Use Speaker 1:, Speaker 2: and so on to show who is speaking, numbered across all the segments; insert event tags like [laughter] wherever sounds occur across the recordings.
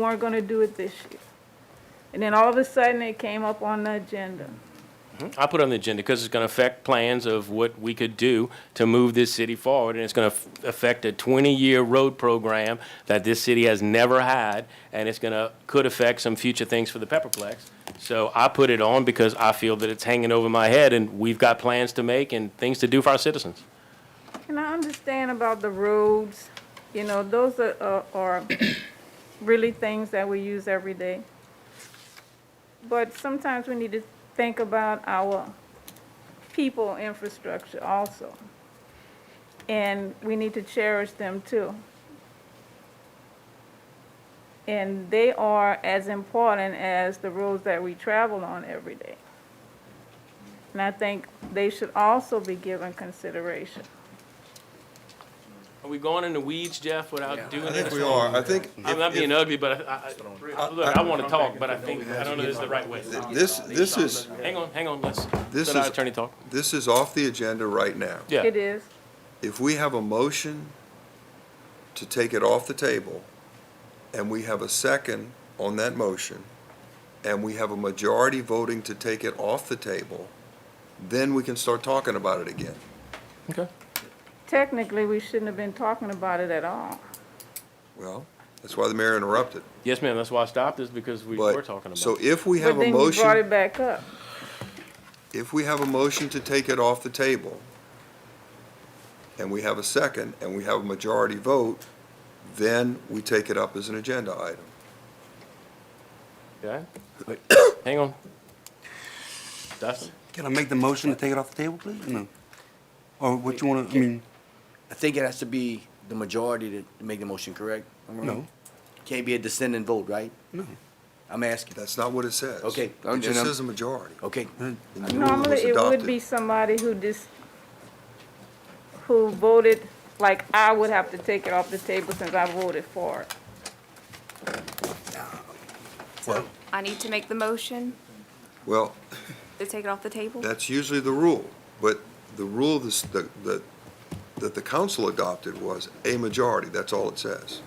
Speaker 1: weren't gonna do it this year. And then all of a sudden, it came up on the agenda.
Speaker 2: I put it on the agenda because it's going to affect plans of what we could do to move this city forward, and it's going to affect a 20-year road program that this city has never had, and it's going to, could affect some future things for the Pepperplex. So I put it on because I feel that it's hanging over my head, and we've got plans to make and things to do for our citizens.
Speaker 1: And I understand about the roads, you know, those are, are- are [coughs] really things that we use every day. But sometimes we need to think about our people infrastructure also. And we need to cherish them too. And they are as important as the roads that we travel on every day. And I think they should also be given consideration.
Speaker 2: Are we going into weeds, Jeff, without
Speaker 3: I
Speaker 2: doing
Speaker 3: think
Speaker 2: this?
Speaker 3: we are. I think
Speaker 2: I'm not being ugly, but I, I, look, I want to talk, but I think, I don't know this is the right way.
Speaker 3: this, this is,
Speaker 2: Hang on, hang on, let's,
Speaker 3: This
Speaker 2: let our
Speaker 3: is-
Speaker 2: attorney talk.
Speaker 3: this is off the agenda right now.
Speaker 2: Yeah.
Speaker 1: It is.
Speaker 3: If we have a motion to take it off the table, and we have a second on that motion, and we have a majority voting to take it off the table, then we can start talking about it again.
Speaker 2: Okay.
Speaker 1: Technically, we shouldn't have been talking about it at all.
Speaker 3: Well, that's why the mayor interrupted.
Speaker 2: Yes, ma'am, that's why I stopped this, because we
Speaker 3: But
Speaker 2: were talking about
Speaker 3: So
Speaker 2: it.
Speaker 3: if we have a
Speaker 1: But then you brought
Speaker 3: motion,
Speaker 1: it back up.
Speaker 3: if we have a motion to take it off the table, and we have a second, and we have a majority vote, then we take it up as an agenda item.
Speaker 2: Okay?
Speaker 3: [coughs]
Speaker 2: Hang on. Dustin?
Speaker 4: Can I make the motion to take it off the table, please? No. Or what you want to, I mean,
Speaker 5: I think it has to be the majority to to make the motion, correct? Am I right?
Speaker 4: No.
Speaker 5: Can't be a dissenting vote, right? No. I'm asking.
Speaker 3: That's not what it says.
Speaker 5: Okay,
Speaker 3: It
Speaker 5: I'm-
Speaker 3: just
Speaker 5: and I'm-
Speaker 3: says a majority.
Speaker 5: Okay,
Speaker 3: in the rule that was
Speaker 1: Normally, it would
Speaker 3: adopted.
Speaker 1: be somebody who just, who voted, like, I would have to take it off the table since I voted for it.
Speaker 3: Well-
Speaker 6: I need to make the motion
Speaker 3: Well,
Speaker 6: to take it off the table?
Speaker 3: that's usually the rule, but the rule this- that, that, that the council adopted was a majority, that's all it says.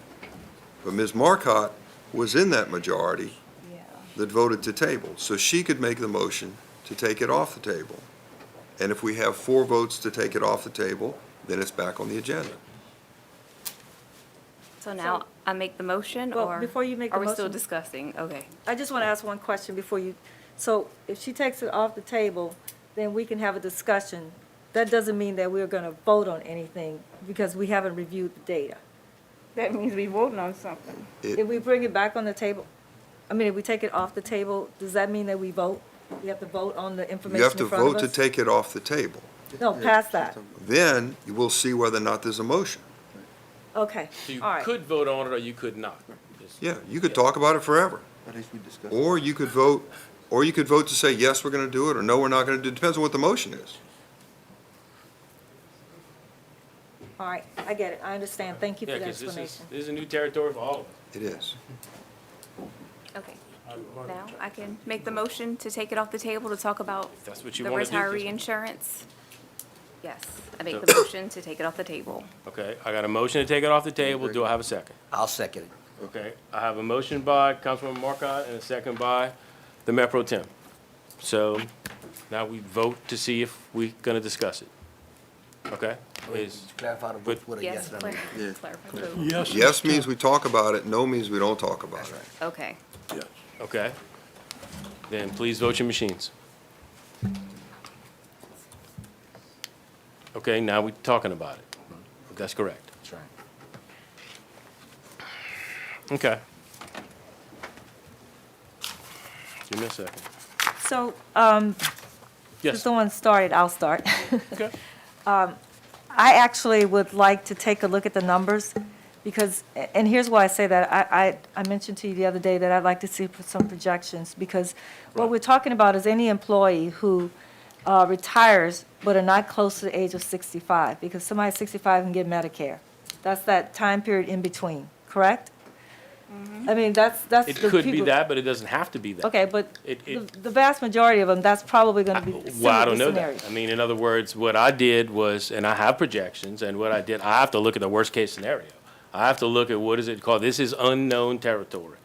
Speaker 3: But Ms. Marcotte was in that majority
Speaker 6: Yeah.
Speaker 3: that voted to table, so she could make the motion to take it off the table. And if we have four votes to take it off the table, then it's back on the agenda.
Speaker 6: So now I make the motion,
Speaker 7: Well,
Speaker 6: or?
Speaker 7: before you make the
Speaker 6: Are we still
Speaker 7: motion-
Speaker 6: discussing? Okay.
Speaker 7: I just want to ask one question before you, so if she takes it off the table, then we can have a discussion. That doesn't mean that we're going to vote on anything because we haven't reviewed the data.
Speaker 1: That means we voting on something.
Speaker 3: It-
Speaker 7: If we bring it back on the table, I mean, if we take it off the table, does that mean that we vote? We have to vote on the
Speaker 3: You
Speaker 7: information
Speaker 3: have to
Speaker 7: in front
Speaker 3: vote to
Speaker 7: of us?
Speaker 3: take it off the table.
Speaker 7: No, pass that.
Speaker 3: Then you will see whether or not there's a motion.
Speaker 7: Okay,
Speaker 2: You
Speaker 7: all right.
Speaker 2: could vote on it or you could not.
Speaker 3: Yeah, you could talk about it forever.
Speaker 4: at least we discussed.
Speaker 3: Or you could vote, or you could vote to say, yes, we're gonna do it, or no, we're not gonna do it, depends on what the motion is.
Speaker 7: All right, I get it. I understand. Thank you
Speaker 2: Yeah,
Speaker 7: for the
Speaker 2: because this is,
Speaker 7: explanation.
Speaker 2: this is a new territory for all of us.
Speaker 3: It is.
Speaker 6: Okay. Now I can make the motion to take it off the table to talk about
Speaker 2: That's what
Speaker 6: the
Speaker 2: you want to do.
Speaker 6: retiree
Speaker 2: Kristen.
Speaker 6: insurance? Yes, I make the motion to take it off the table.
Speaker 2: Okay, I got a motion to take it off the table. Do I have a second?
Speaker 5: I'll second it.
Speaker 2: Okay, I have a motion by Councilwoman Marcotte and a second by the Mayor Pro Tem. So now we vote to see if we're going to discuss it. Okay? Is,
Speaker 5: Clarify the vote with a
Speaker 6: Yes,
Speaker 5: yes and a no.
Speaker 6: clar- clarify. vote.
Speaker 3: Yes means we talk about it, no means we don't talk about it.
Speaker 6: Okay.
Speaker 2: okay? Then please vote your machines. Okay, now we're talking about it. That's correct.
Speaker 5: That's right.
Speaker 2: Okay. Give me a second.
Speaker 7: So, um, if
Speaker 2: Yes,
Speaker 7: someone started, I'll start. [laughs]
Speaker 2: okay.
Speaker 7: I actually would like to take a look at the numbers, because, and here's why I say that. I, I, I mentioned to you the other day that I'd like to see some projections, because what we're talking about is any employee who uh, retires but are not close to the age of 65, because somebody 65 can get Medicare. That's that time period in between, correct? I mean, that's, that's the
Speaker 2: It
Speaker 7: people.
Speaker 2: could be that, but it doesn't have to be that.
Speaker 7: Okay, but
Speaker 2: It-
Speaker 7: the
Speaker 2: it-
Speaker 7: the vast majority of them, that's probably going to be
Speaker 2: Well, I
Speaker 7: similar
Speaker 2: don't know
Speaker 7: scenarios.
Speaker 2: that. I mean, in other words, what I did was, and I have projections, and what I did, I have to look at the worst-case scenario. I have to look at what is it called, this is unknown territory.